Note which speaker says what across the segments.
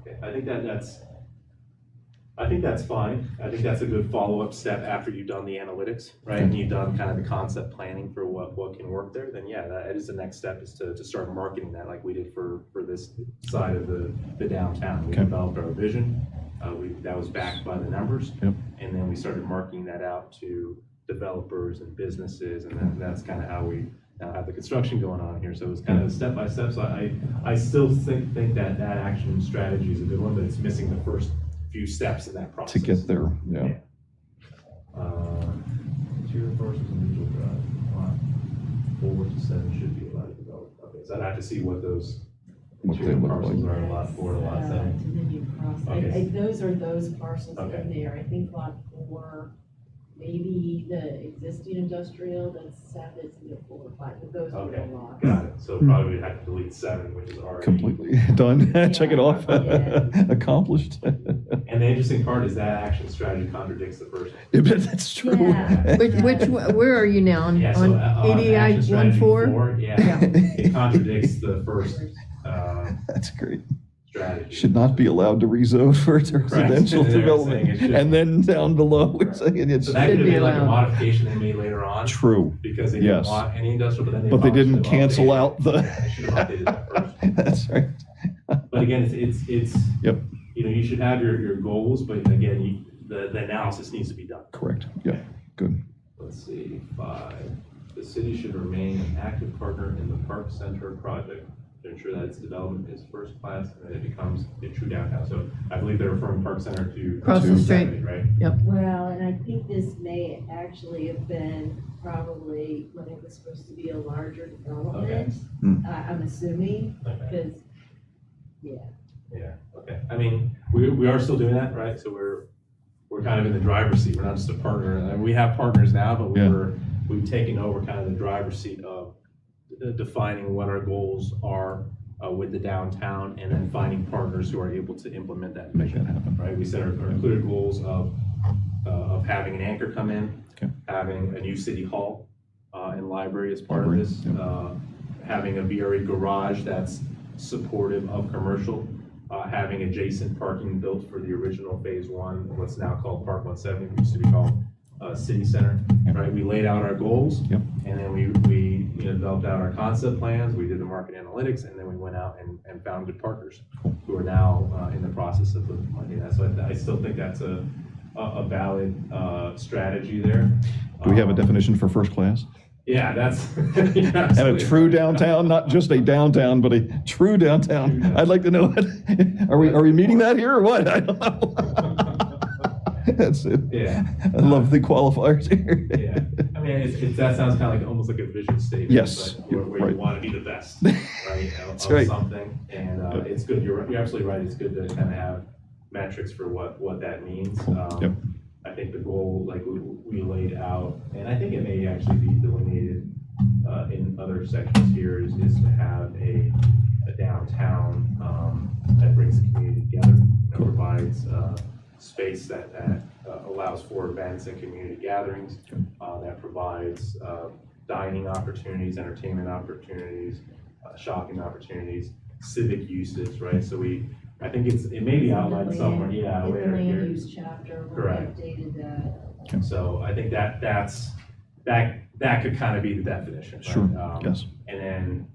Speaker 1: Okay, I think that that's, I think that's fine. I think that's a good follow-up step after you've done the analytics, right? And you've done kind of the concept planning for what, what can work there, then yeah, that is the next step is to, to start marketing that like we did for, for this side of the, the downtown. We
Speaker 2: Okay.
Speaker 1: developed our vision, uh, we, that was backed by the numbers.
Speaker 2: Yep.
Speaker 1: And then we started marketing that out to developers and businesses, and then that's kind of how we now have the construction going on here. So it's kind of a step by step, so I, I still think, think that that action strategy is a good one, but it's missing the first few steps of that process.
Speaker 2: to get there, yeah.
Speaker 1: Interior parcels and digital drive, lot four to seven should be allowed to develop. Okay, so I'd have to see what those
Speaker 2: What they
Speaker 1: interior
Speaker 2: look
Speaker 1: parcels
Speaker 2: like.
Speaker 1: are, lot four to lot
Speaker 3: Uh,
Speaker 1: seven.
Speaker 3: To the new parcel, I,
Speaker 1: Okay.
Speaker 3: I, those are those parcels in
Speaker 1: Okay.
Speaker 3: there, I think lot four, maybe the existing industrial, that's seven, it's in the four, or five, but those are the
Speaker 1: Okay.
Speaker 3: lots.
Speaker 1: Got it, so probably we'd have to delete seven, which is already.
Speaker 2: Completely done, check it off,
Speaker 3: Yeah.
Speaker 2: accomplished.
Speaker 1: And the interesting part is that action strategy contradicts the first.
Speaker 2: Yeah, but That's true.
Speaker 3: Yeah.
Speaker 4: Which, which, where are you now? On
Speaker 1: Yeah, so,
Speaker 4: on
Speaker 1: uh, on
Speaker 4: ADI
Speaker 1: action strategy
Speaker 4: 14?
Speaker 1: Yeah,
Speaker 4: Yeah.
Speaker 1: it contradicts the first, uh,
Speaker 2: That's great.
Speaker 1: strategy.
Speaker 2: Should not be allowed to rezone for its
Speaker 1: And
Speaker 2: residential
Speaker 1: they're saying
Speaker 2: development.
Speaker 1: it should-
Speaker 2: And then down below, it's saying it's
Speaker 1: So that could
Speaker 4: Should
Speaker 1: have
Speaker 4: be
Speaker 1: been like a
Speaker 4: allowed.
Speaker 1: modification they made later on,
Speaker 2: true.
Speaker 1: because they didn't
Speaker 2: Yes.
Speaker 1: want any industrial, but then they.
Speaker 2: But they didn't
Speaker 1: probably should've
Speaker 2: cancel
Speaker 1: updated
Speaker 2: out the-
Speaker 1: it. Yeah, They should have updated that first.
Speaker 2: That's right.
Speaker 1: But again, it's, it's, it's.
Speaker 2: Yep.
Speaker 1: You know, you should have your, your goals, but again, you, the, the analysis needs to be done.
Speaker 2: Correct. Yeah, good.
Speaker 1: Let's see, five, the city should remain an active partner in the park center project to ensure that its development is first class and that it becomes a true downtown. So I believe they're referring park center to.
Speaker 4: Across
Speaker 2: the
Speaker 4: street.
Speaker 1: Seventy, Right?
Speaker 3: Well, and I think this may actually have been probably when it was supposed to be a larger development,
Speaker 2: Hmm.
Speaker 3: uh, I'm assuming,
Speaker 1: Okay.
Speaker 3: because, yeah.
Speaker 1: Yeah, okay. I mean, we, we are still doing that, right? So we're, we're kind of in the driver's seat. We're not just a partner. And we have partners now, but we
Speaker 2: Yeah.
Speaker 1: were, we've taken over kind of the driver's seat of uh, defining what our goals are uh, with the downtown and then finding partners who are able to implement that
Speaker 2: Make
Speaker 1: vision
Speaker 2: that happen.
Speaker 1: right? We set our, our clear goals of, uh, of having an anchor come in,
Speaker 2: Okay.
Speaker 1: having a new city hall, uh, and library as part of
Speaker 2: Library,
Speaker 1: this,
Speaker 2: yeah.
Speaker 1: uh, having a VRE garage that's supportive of commercial, uh, having adjacent parking built for the original phase one, what's now called Park one seventy, used to be called, uh, City Center,
Speaker 2: Yeah.
Speaker 1: right? We laid out our goals.
Speaker 2: Yep.
Speaker 1: And then we, we, you know, developed out our concept plans, we did the market analytics, and then we went out and, and found good partners who are now uh, in the process of looking money. That's why I still think that's a, a a valid uh, strategy there.
Speaker 2: Do we have a
Speaker 1: Um,
Speaker 2: definition for first class?
Speaker 1: Yeah, that's.
Speaker 2: And a true downtown, not just a downtown, but a true downtown. I'd like to know, it. are we, are we meeting that here or what? I don't know. That's it.
Speaker 1: Yeah.
Speaker 2: I love the qualifiers here.
Speaker 1: Yeah, I mean, it's, it's, that sounds kind of like, almost like a vision statement.
Speaker 2: Yes,
Speaker 1: but Where, where
Speaker 2: right.
Speaker 1: you want to be the best, right, of
Speaker 2: That's
Speaker 1: of
Speaker 2: right.
Speaker 1: something, and, uh, it's good, you're, right- you're absolutely right, it's good to kind of have metrics for what, what that means. Um,
Speaker 2: Yep.
Speaker 1: I think the goal, like we, we laid out, and I think it may actually be delineated, uh, in other sections here, is, is to have a, a downtown, um, that brings the community together, that provides, uh, space that, that uh, allows for events and community gatherings, uh, that provides uh, dining opportunities, entertainment opportunities, uh, shopping opportunities, civic uses, right? So we, I think it's, it may be outlined somewhere, yeah,
Speaker 3: In the
Speaker 1: later
Speaker 3: land
Speaker 1: here.
Speaker 3: use chapter, we
Speaker 1: Correct.
Speaker 3: updated that.
Speaker 1: So I think that, that's, that, that could kind of be the definition, right?
Speaker 2: Sure,
Speaker 1: Um,
Speaker 2: Yes.
Speaker 1: And then,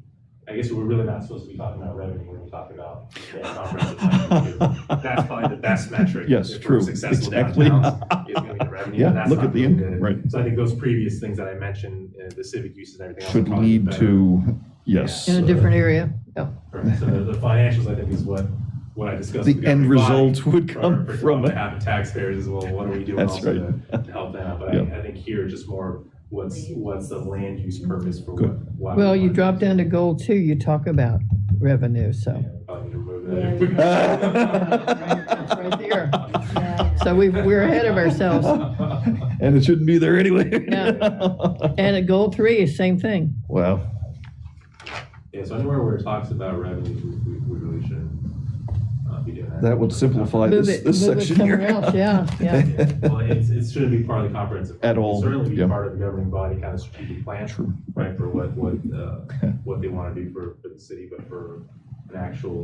Speaker 1: I guess we're really not supposed to be talking about revenue when we talk about yeah, comprehensive plan review. That's probably the best metric.
Speaker 2: Yes,
Speaker 1: If we're
Speaker 2: true.
Speaker 1: Successful
Speaker 2: Exactly.
Speaker 1: downtowns is gonna be the revenue.
Speaker 2: Yeah,
Speaker 1: and that's
Speaker 2: look
Speaker 1: not
Speaker 2: at the
Speaker 1: really good.
Speaker 2: end, right.
Speaker 1: So I think those previous things that I mentioned, uh, the civic uses and everything else.
Speaker 2: Should
Speaker 1: are probably
Speaker 2: lead
Speaker 1: better.
Speaker 2: to, yes.
Speaker 4: In a
Speaker 1: uh,
Speaker 4: different area? Oh. Yeah.
Speaker 1: Correct. So the the financials, I think, is what, what I discussed.
Speaker 2: The
Speaker 1: with
Speaker 2: end
Speaker 1: everybody.
Speaker 2: result would
Speaker 1: For-
Speaker 2: come
Speaker 1: for
Speaker 2: from
Speaker 1: the
Speaker 2: it.
Speaker 1: habit taxpayers as well, what are we doing
Speaker 2: That's
Speaker 1: also to to help them out? But I, I think here just more, what's, what's the land use purpose for what? why we
Speaker 4: Well, you
Speaker 1: want
Speaker 4: drop
Speaker 1: this?
Speaker 4: down to goal two, you talk about revenue, so.
Speaker 1: Probably need to remove
Speaker 4: That's
Speaker 1: that.
Speaker 4: right there.
Speaker 3: Yeah.
Speaker 4: So we, we're ahead of ourselves.
Speaker 2: And it shouldn't be there anyway.
Speaker 4: No. And at goal three, same thing.
Speaker 2: Wow.
Speaker 1: Yeah, so anywhere where it talks about revenue, we, we really shouldn't uh, be doing that.
Speaker 2: That would simplify
Speaker 4: Move
Speaker 2: this,
Speaker 4: it-
Speaker 2: this
Speaker 4: move it
Speaker 2: section here.
Speaker 4: somewhere else, yeah, yeah.
Speaker 1: Well, it's, it shouldn't be part of the comprehensive. plan.
Speaker 2: At all,
Speaker 1: It's Certainly be
Speaker 2: yeah.
Speaker 1: part of the governing body kind of strategic plan.
Speaker 2: True.
Speaker 1: right, for what, what, uh, what they want to do for, for the city, but for an actual